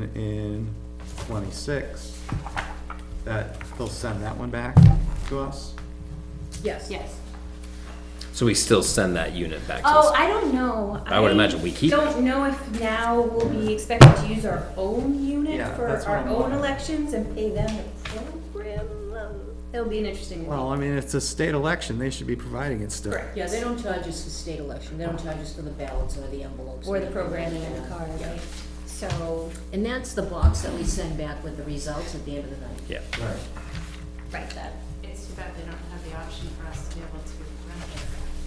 one in twenty-six, that they'll send that one back to us? Yes. Yes. So we still send that unit back to Oh, us? I don't know. I would imagine we keep it. Don't know if now we'll be expected to use our own unit Yeah, for that's what our I'm own wondering. elections and pay them the program. Um, It'll be an interesting one. Well, I mean, it's a state election, they should be providing it still. Correct. Yeah, they don't charge us for state election, they don't charge us for the ballots or the envelopes. Or the anything like programming in the that. car, Yeah. right? So, And that's the box that we send back with the results at the end of the night. Yeah. Right. right, that, It's too bad they don't have the option for us to be able to run it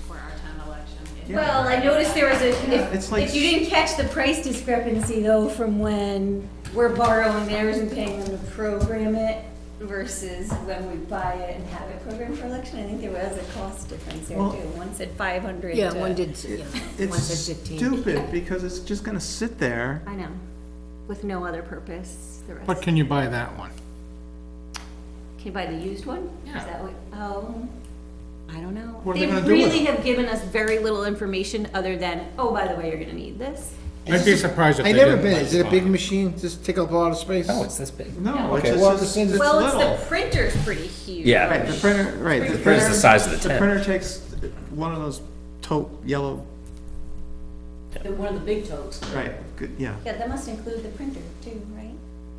for our town election. If- Yeah. Well, I noticed there was a, it's if, like- if you didn't catch the price discrepancy though, from when we're borrowing theirs and paying them to program it versus when we buy it and have it programmed for election, I think there was a cost difference there Well- too. One said five hundred. Yeah, one did, yeah, one It's said fifteen. stupid, because it's just gonna sit there. I know, with no other purpose, the rest. But can you buy that one? Can you buy the used one? Yeah. Is that what, oh, I don't know. What are they They gonna do with really it? have given us very little information other than, oh, by the way, you're gonna need this. I'd be surprised if I they never didn't. been, like is it a buy big machine, does it take up a lot of space? Oh, it's this big. No, it's Okay, just, well, it's the same- it's Well, it's little. the printer's pretty huge. Yeah. Right, the printer, right, the It's the printer, size of the the tent. printer takes one of those taupe, yellow, They're One of the big totes. right, good, yeah. Yeah, that must include the printer too, right?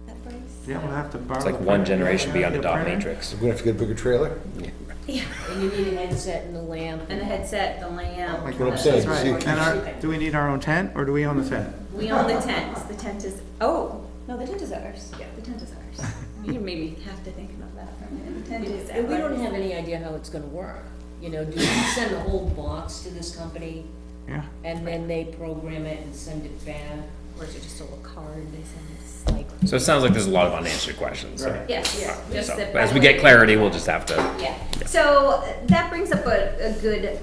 That price? Yeah, we'll have to borrow. It's the like one printer. generation beyond a dot Printer? matrix. We're gonna have to get a bigger trailer? And you need a headset and a lamp. And the headset, the lamp. Like what I'm the- saying, Right, So you can- and our, do we need our own tent, or do we own the tent? We own the tent, the tent is, oh, no, the tent is ours. Yeah. The tent is ours. You maybe have to think about that for a minute. The tent is And we don't ours. have any idea how it's gonna work. You know, do we send the whole box to this company Yeah, and then they program it and send it back? Or is it just a little card they send us? Like, So it sounds like there's a lot of unanswered questions. so- Right. Yes, so, just that As we by- get clarity, we'll just have to, Yeah, so uh, that brings up a, a good,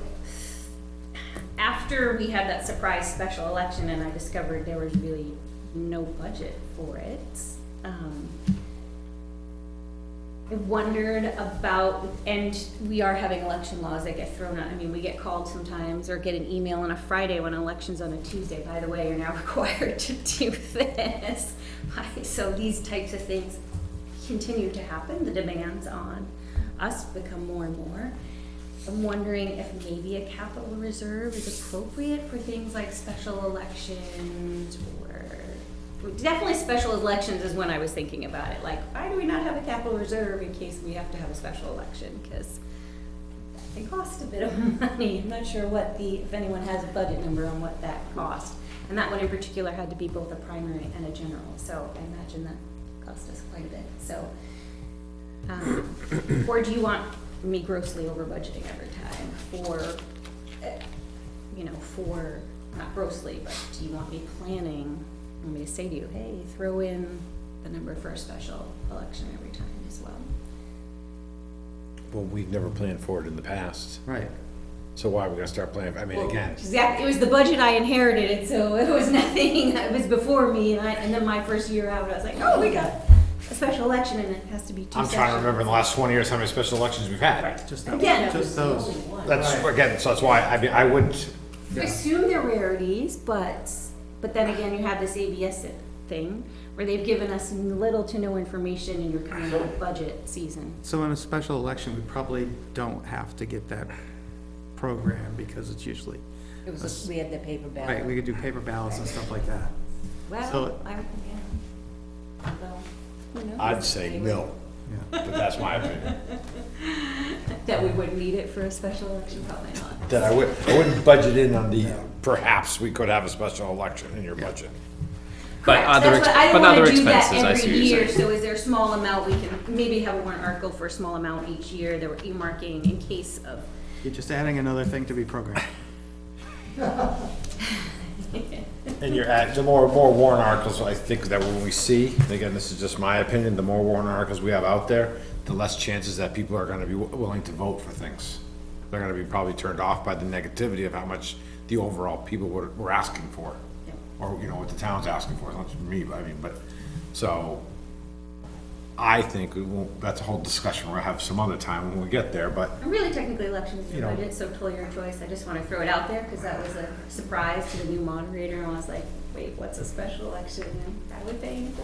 after we had that surprise special election and I discovered there was really no budget for it, um, I wondered about, and we are having election laws that get thrown out, I mean, we get called sometimes or get an email on a Friday when election's on a Tuesday, by the way, you're now required to do this. Why? So these types of things continue to happen, the demands on us become more and more. I'm wondering if maybe a capital reserve is appropriate for things like special elections or, definitely special elections is when I was thinking about it, like, why do we not have a capital reserve in case we have to have a special election? Because they cost a bit of money. I'm not sure what the, if anyone has a budget number on what that cost. And that one in particular had to be both a primary and a general, so I imagine that cost us quite a bit, so. um, Or do you want me grossly over budgeting every time for, uh, you know, for, not grossly, but do you want me planning? Want me to say to you, hey, throw in the number for a special election every time as well? Well, we've never planned for it in the past, right. so why are we gonna start planning, I mean, again, Exactly, it was the budget I inherited, it, so it was nothing, it was before me, and I, and then my first year out, I was like, oh, we got a special election, and it has to be two I'm trying to sessions. remember in the last twenty years how many special elections we've had. Just that, Again. just those. That's, again, so that's why, I mean, I wouldn't, I assume they're rarities, but, but then again, you have this ABS thing, where they've given us little to no information, and you're coming out of budget season. So in a special election, we probably don't have to get that program, because it's usually, It was, we had the paper right, we ballot. could do paper ballots and stuff like that. So- Well, I, yeah. Well, who knows? I'd say no, Yeah. but that's my opinion. That we would need it for a special election, probably not. That I would, I wouldn't budget in on the, perhaps we could have a special election in your budget. but Correct. other, That's what- ex- I but wanna other do that expenses, I every see what you're year, saying. So is there a small amount we can, maybe have a warrant article for a small amount each year that we're earmarking in case of, You're just adding another thing to be programmed. And you're at, the more, more warrant articles, I think that when we see, and again, this is just my opinion, the more warrant articles we have out there, the less chances that people are gonna be wi- willing to vote for things. They're gonna be probably turned off by the negativity of how much the overall people were, were asking for. Yeah. Or, you know, what the town's asking for, not just me, but I mean, but, so, I think we won't, that's a whole discussion we'll have some other time when we get there, but and really technically elections is You a know. budget, so totally your choice. I just want to throw it out there because that was a surprise to the new moderator. and I was like, wait, what's a special election? And I would pay